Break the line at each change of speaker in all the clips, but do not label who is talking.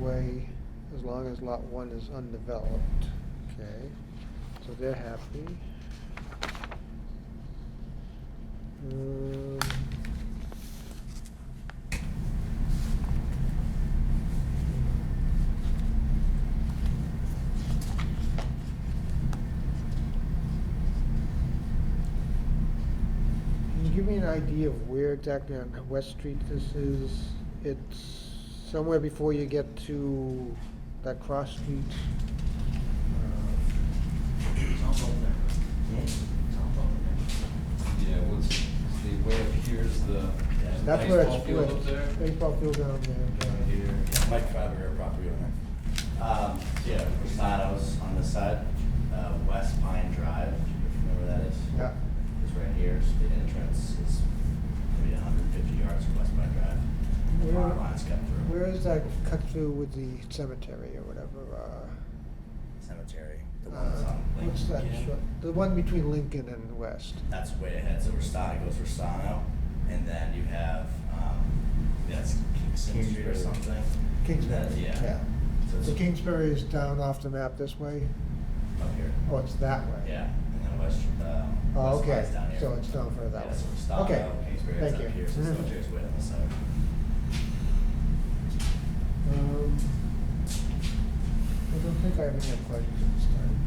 away as long as lot one is undeveloped. Okay, so they're happy. Um, Can you give me an idea of where exactly on West Street this is? It's somewhere before you get to that cross street. Uh,
It's all over there. It's all over
Yeah, what's, see, way up here's the
That's where
baseball
it's
field up there.
split, baseball field down there.
Down here.
there.
Mike Faber, property owner.
Um, yeah, Rosado's on this side, uh, West Pine Drive, if you know where that is.
Yeah.
It's right here, so the entrance is maybe hundred and fifty yards from West Pine Drive.
Where-
Lot lines cut through.
Where is that cut through with the cemetery or whatever?
Cemetery, the
uh,
one that's
uh,
on
What's that,
Lincoln.
short- the one between Lincoln and West?
That's way ahead, so Restano goes Restano, and then you have, um, that's Kingston Street or
Kingsbury.
something.
Kingsbury,
That-
yeah.
Yeah. So it's
So Kingsbury is down off the map this way?
Up here.
Oh, it's that way?
Yeah, and then West, um,
Oh,
West
okay,
Pine's down here.
so it's down further that
Yeah,
way?
so Restano,
Okay,
Kingsbury is
thank
up
you. Mm-hmm.
here, so Cemetery's way on the side.
Um, I don't think I have any other questions at this time.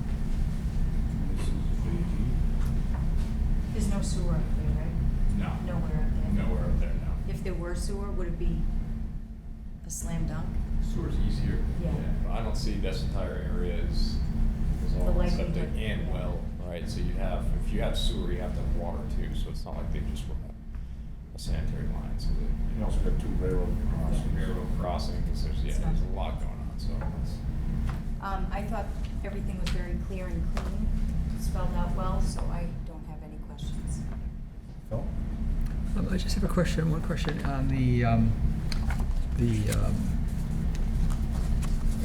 This is the-
There's no sewer up there, right?
No.
Nowhere up there?
Nowhere up there now.
If there were sewer, would it be a slam dunk?
Sewer's easier.
Yeah.
But I don't see this entire area is, is
The
all
likelihood-
septic and well, right? So you have, if you have sewer, you have to have water too, so it's not like they just run a sanitary line, so they.
You also got two railroad crossings.
Railroad crossings, there's, yeah,
It's not-
there's a lot going on, so it's,
Um, I thought everything was very clear and clean, spelled out well, so I don't have any questions.
Phil?
Um, I just have a question, one question on the, um, the, um,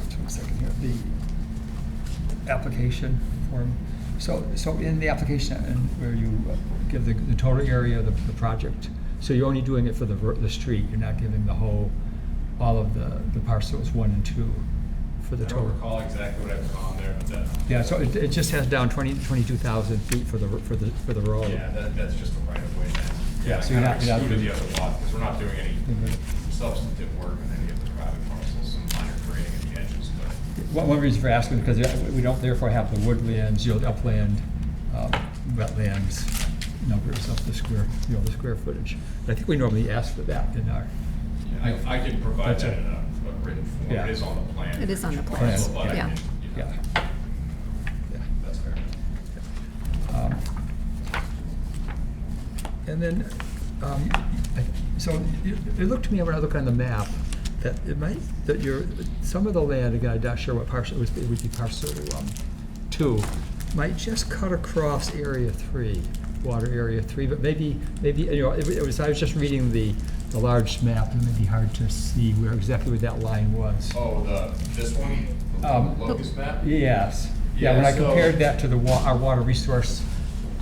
just one second here, the application form. So, so in the application, and where you uh, give the, the total area of the, the project, so you're only doing it for the, ver- the street, you're not giving the whole, all of the, the parcels one and two for the
I
total?
don't recall exactly what I put on there, but that.
Yeah, so it, it just has down twenty, twenty-two thousand feet for the, r- for the, for the road.
Yeah, that, that's just a right of way. that's-
Yeah,
I
so you're
kinda
not- Mm-hmm. you're not
Excluded the
doing-
other lot, because we're not doing any substantive work on any of the private parcels, some minor grading at the edges, but.
One, one reason for asking, because we don't therefore have the woodlands, you know, the upland, um, wetlands numbers of the square, you know, the square footage. But I think we normally ask for that in our,
Yeah, I, I can provide
That's
that
it.
in a, a written form,
Yeah.
it is on the plan.
It is
for
on
each
the plan,
parcel, But I
yeah.
can, you know,
yeah. Yeah.
that's fair.
Um, And then, um, I- so it it looked to me when I look on the map, that it might, that your, some of the land, again, I'm not sure what parcel, it was- it would be parcel um, two, might just cut across area three, water area three, but maybe, maybe, you know, it wa- it was, I was just reading the, the large map, and it may be hard to see where, exactly where that line was.
Oh, the, this one,
Um,
the locust map?
Yes, yeah, when
Yeah,
I
so-
compared that to the wa, our water resource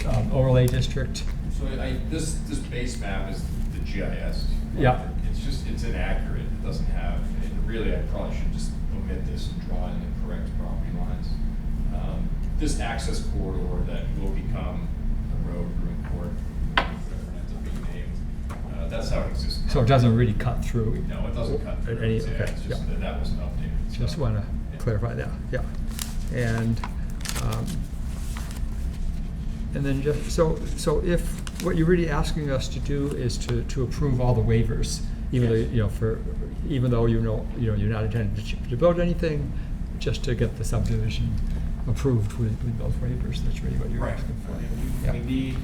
um, overlay district,
So I, this, this base map is the GIS.
Yeah.
It's just, it's inaccurate, it doesn't have, and really, I probably should just omit this and draw in the correct property lines. Um, This access corridor that will become the road, room court, whatever it ends up being named, uh, that's how it exists.
So it doesn't really cut through?
No, it doesn't cut through,
Any-
it's, yeah,
okay,
it's
yeah.
just that that wasn't updated. so-
Just want to
Yeah.
clarify that, yeah. And, um, and then just, so, so if, what you're really asking us to do is to, to approve all the waivers, even though,
Yes.
you know, for, even though you know, you know, you're not intending to- to build anything, just to get the subdivision approved with, with those waivers, that's really what you're
Right,
asking for.
I mean,
Yeah.
we, we need,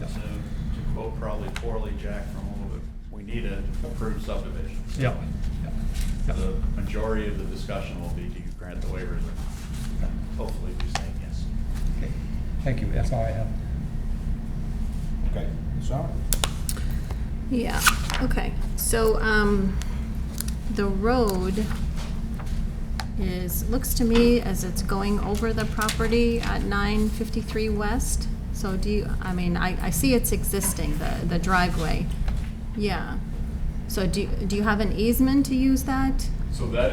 Yeah.
to to quote probably poorly Jack from a little bit, we need an approved subdivision.
Yeah, yeah, yeah.
The majority of the discussion will be, do you grant the waivers?
Yeah.
Hopefully, we say yes.
Okay. Thank you, that's all I have.
Okay, so,
Yeah, okay. So, um, the road is, looks to me as it's going over the property at nine fifty-three west. So do you, I mean, I, I see it's existing, the, the driveway. Yeah. So do, you- do you have an easement to use that?
So that